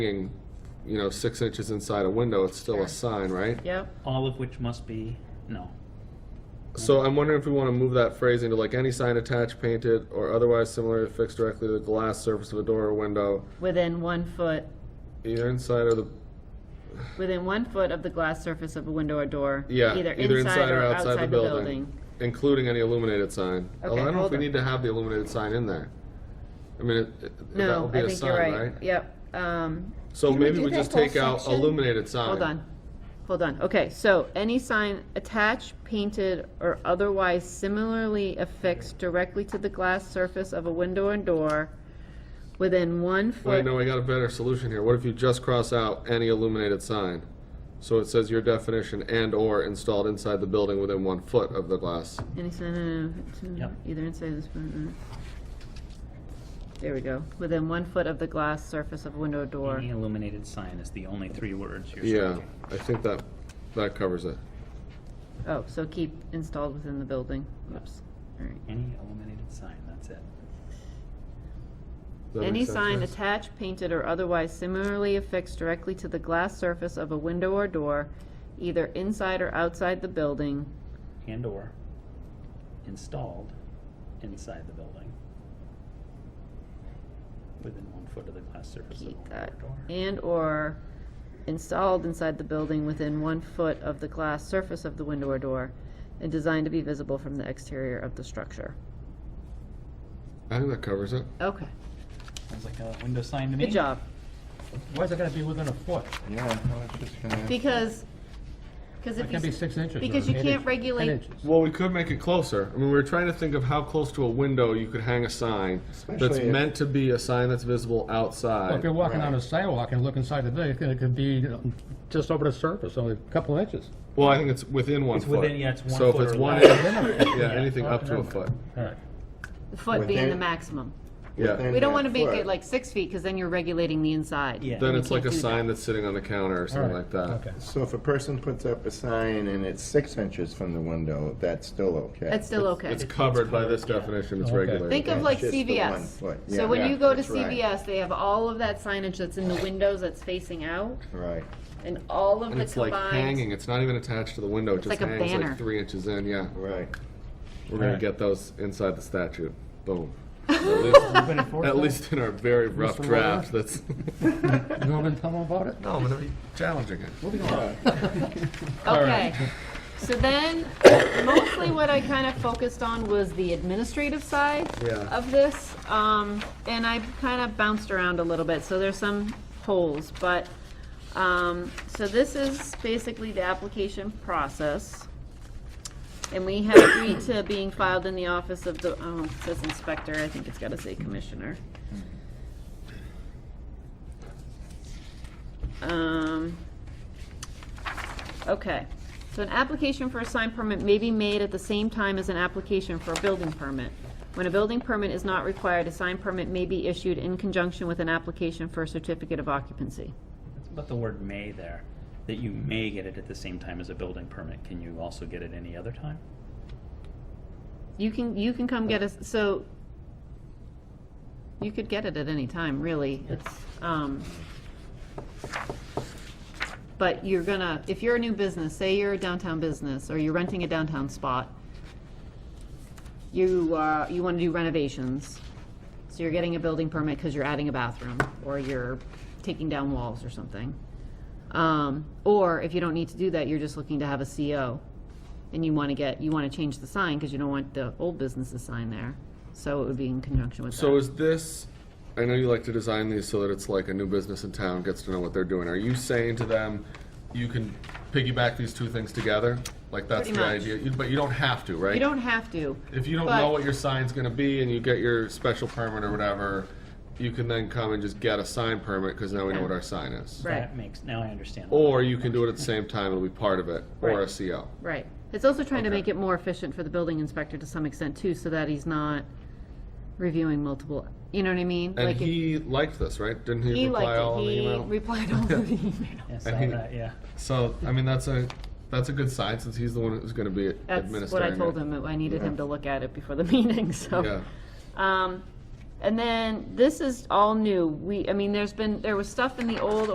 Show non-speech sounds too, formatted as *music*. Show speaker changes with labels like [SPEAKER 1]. [SPEAKER 1] hanging, you know, six inches inside a window, it's still
[SPEAKER 2] Sure.
[SPEAKER 1] a sign, right?
[SPEAKER 2] Yep,
[SPEAKER 3] all of which must be, no.
[SPEAKER 1] So I'm wondering if we want to move that phrase into like any sign attached, painted, or otherwise similarly affixed directly to the glass surface of a door or window,
[SPEAKER 2] within one foot,
[SPEAKER 1] either inside or the,
[SPEAKER 2] within one foot of the glass surface of a window or door.
[SPEAKER 1] yeah,
[SPEAKER 2] Either inside or outside the building.
[SPEAKER 1] Including any illuminated sign. Although I
[SPEAKER 2] Okay,
[SPEAKER 1] don't know if
[SPEAKER 2] hold
[SPEAKER 1] we
[SPEAKER 2] on.
[SPEAKER 1] need to have the illuminated sign in there. I mean, it- it- that
[SPEAKER 2] No,
[SPEAKER 1] would be
[SPEAKER 2] I
[SPEAKER 1] a
[SPEAKER 2] think you're
[SPEAKER 1] sign,
[SPEAKER 2] right.
[SPEAKER 1] right?
[SPEAKER 2] Yep, um,
[SPEAKER 1] So
[SPEAKER 4] Can we
[SPEAKER 1] maybe
[SPEAKER 4] do
[SPEAKER 1] we
[SPEAKER 4] that
[SPEAKER 1] just
[SPEAKER 4] whole
[SPEAKER 1] take out
[SPEAKER 4] section?
[SPEAKER 1] illuminated sign.
[SPEAKER 2] hold on, hold on. Okay, so any sign attached, painted, or otherwise similarly affixed directly to the glass surface of a window or door within one
[SPEAKER 1] Wait,
[SPEAKER 2] foot.
[SPEAKER 1] no, I got a better solution here. What if you just cross out any illuminated sign? So it says your definition and/or installed inside the building within one foot of the glass.
[SPEAKER 2] Any sign, uh, uh,
[SPEAKER 3] Yep.
[SPEAKER 2] either inside this, one, uh, there we go, within one foot of the glass surface of a window or door.
[SPEAKER 3] Any illuminated sign is the only three words you're
[SPEAKER 1] Yeah,
[SPEAKER 3] striking.
[SPEAKER 1] I think that, that covers it.
[SPEAKER 2] Oh, so keep installed within the building, oops, alright.
[SPEAKER 3] Any illuminated sign, that's it.
[SPEAKER 1] Does that
[SPEAKER 2] Any
[SPEAKER 1] make sense,
[SPEAKER 2] sign
[SPEAKER 1] guys?
[SPEAKER 2] attached, painted, or otherwise similarly affixed directly to the glass surface of a window or door, either inside or outside the building,
[SPEAKER 3] And/or installed inside the building. Within one foot of the glass surface of a
[SPEAKER 2] keep
[SPEAKER 3] window
[SPEAKER 2] that,
[SPEAKER 3] or door.
[SPEAKER 2] and/or installed inside the building within one foot of the glass surface of the window or door, and designed to be visible from the exterior of the structure.
[SPEAKER 1] I think that covers it.
[SPEAKER 2] Okay,
[SPEAKER 3] Sounds like a window sign to me.
[SPEAKER 2] good job.
[SPEAKER 5] Why is it gonna be within a foot?
[SPEAKER 4] Yeah, I was just gonna.
[SPEAKER 2] Because, because
[SPEAKER 5] It
[SPEAKER 2] if
[SPEAKER 5] can be
[SPEAKER 2] you,
[SPEAKER 5] six inches. or
[SPEAKER 2] because you
[SPEAKER 5] eight
[SPEAKER 2] can't
[SPEAKER 5] inch-
[SPEAKER 2] regulate-
[SPEAKER 5] Ten inches.
[SPEAKER 1] Well, we could make it closer. I mean, we were trying to think of how close to a window you could hang a sign that's
[SPEAKER 4] Especially if-
[SPEAKER 1] meant to be a sign that's visible
[SPEAKER 5] Well, If you're
[SPEAKER 1] outside.
[SPEAKER 5] walking on a sidewalk and look inside the building, it could- it could be you know, just over the surface, only a couple of inches.
[SPEAKER 1] Well, I think it's within one
[SPEAKER 3] It's
[SPEAKER 1] foot.
[SPEAKER 3] within- yeah, it's one
[SPEAKER 1] So if
[SPEAKER 3] foot
[SPEAKER 1] it's
[SPEAKER 3] or
[SPEAKER 1] one,
[SPEAKER 3] less.
[SPEAKER 1] inch, yeah, anything up to a foot.
[SPEAKER 5] All right.
[SPEAKER 2] the foot being
[SPEAKER 4] Within-
[SPEAKER 2] the maximum.
[SPEAKER 1] Yeah.
[SPEAKER 4] Within
[SPEAKER 2] We don't
[SPEAKER 4] that
[SPEAKER 2] wanna make it
[SPEAKER 4] foot.
[SPEAKER 2] like six feet, cause then you're regulating the inside.
[SPEAKER 3] Yeah.
[SPEAKER 1] Then
[SPEAKER 2] we
[SPEAKER 1] it's like a
[SPEAKER 2] can't do that.
[SPEAKER 1] sign that's sitting on the counter or
[SPEAKER 5] All
[SPEAKER 1] something
[SPEAKER 5] right,
[SPEAKER 1] like that.
[SPEAKER 5] Okay.
[SPEAKER 4] So if a person puts up a sign and it's six inches from the window, that's still okay?
[SPEAKER 2] That's still okay.
[SPEAKER 1] It's covered by this definition, it's
[SPEAKER 5] Okay.
[SPEAKER 1] regulated.
[SPEAKER 2] Think of
[SPEAKER 4] That's
[SPEAKER 2] like
[SPEAKER 4] just the one
[SPEAKER 2] CVS.
[SPEAKER 4] foot.
[SPEAKER 2] So
[SPEAKER 4] Yeah.
[SPEAKER 2] when
[SPEAKER 4] Yeah,
[SPEAKER 2] you go to
[SPEAKER 4] that's right.
[SPEAKER 2] CVS, they have all of that signage that's in the windows that's facing out
[SPEAKER 4] Right.
[SPEAKER 2] and all of
[SPEAKER 1] And
[SPEAKER 2] the
[SPEAKER 1] it's like hanging,
[SPEAKER 2] combined.
[SPEAKER 1] it's not even attached to the window, it just
[SPEAKER 2] like a
[SPEAKER 1] hangs like
[SPEAKER 2] banner.
[SPEAKER 1] three inches in, yeah.
[SPEAKER 4] Right.
[SPEAKER 1] We're gonna
[SPEAKER 5] Alright.
[SPEAKER 1] get those inside the statute,
[SPEAKER 2] *laughs*
[SPEAKER 1] boom. At least- At least in our very rough
[SPEAKER 5] Mr.
[SPEAKER 1] draft, that's.
[SPEAKER 5] You want me to tell them about it?
[SPEAKER 1] No, I'm gonna be challenging it.
[SPEAKER 2] Okay. So then, mostly what I kind of focused on was the administrative side
[SPEAKER 1] Yeah.
[SPEAKER 2] of this. Um, and I kind of bounced around a little bit, so there's some holes, but, um, so this is basically the application process. And we have agreed to being filed in the office of the, oh, it says inspector, I think it's gotta say commissioner. Um, okay, so an application for a sign permit may be made at the same time as an application for a building permit. When a building permit is not required, a sign permit may be issued in conjunction with an application for a certificate of occupancy.
[SPEAKER 3] It's about the word may there, that you may get it at the same time as a building permit. Can you also get it any other time?
[SPEAKER 2] You can, you can come get us, so, you could get it at any time, really, it's, um, but you're gonna, if you're a new business, say you're a downtown business, or you're renting a downtown spot, you, uh, you wanna do renovations, so you're getting a building permit because you're adding a bathroom, or you're taking down walls or something. Um, or if you don't need to do that, you're just looking to have a CO, and you wanna get, you wanna change the sign, because you don't want the old business's sign there, so it would be in conjunction with that.
[SPEAKER 1] So is this, I know you like to design these so that it's like a new business in town gets to know what they're doing. Are you saying to them, you can piggyback these two things together? Like that's the
[SPEAKER 2] Pretty much.
[SPEAKER 1] idea, You- but you don't have to, right?
[SPEAKER 2] You don't have to.
[SPEAKER 1] If you don't
[SPEAKER 2] But-
[SPEAKER 1] know what your sign's gonna be and you get your special permit or whatever, you can then come and just get a sign permit, because now we know
[SPEAKER 2] Okay.
[SPEAKER 1] what our sign is.
[SPEAKER 2] Right.
[SPEAKER 3] That makes, now I understand.
[SPEAKER 1] Or you can do it at the same time, it'll be part of it, or a
[SPEAKER 2] Right.
[SPEAKER 1] CO.
[SPEAKER 2] Right. It's also trying to make it more efficient for the building inspector to some extent too, so that he's not reviewing multiple, you know what I mean?
[SPEAKER 1] And
[SPEAKER 2] Like if-
[SPEAKER 1] he liked this, right? Didn't he
[SPEAKER 2] He
[SPEAKER 1] reply
[SPEAKER 2] liked
[SPEAKER 1] all
[SPEAKER 2] it.
[SPEAKER 1] in the
[SPEAKER 2] He
[SPEAKER 1] email?
[SPEAKER 2] replied all to
[SPEAKER 1] *laughs*
[SPEAKER 2] the email.
[SPEAKER 3] Yeah, saw
[SPEAKER 1] I mean-
[SPEAKER 3] that, yeah.
[SPEAKER 1] So, I mean, that's a, that's a good sign, since he's the one who's gonna be administering
[SPEAKER 2] That's what I told
[SPEAKER 1] it.
[SPEAKER 2] *laughs* him. I needed him to look at it before the meeting, so.
[SPEAKER 1] Yeah.
[SPEAKER 2] Um, And then, this is all new. We, I mean, there's been, there was stuff in the old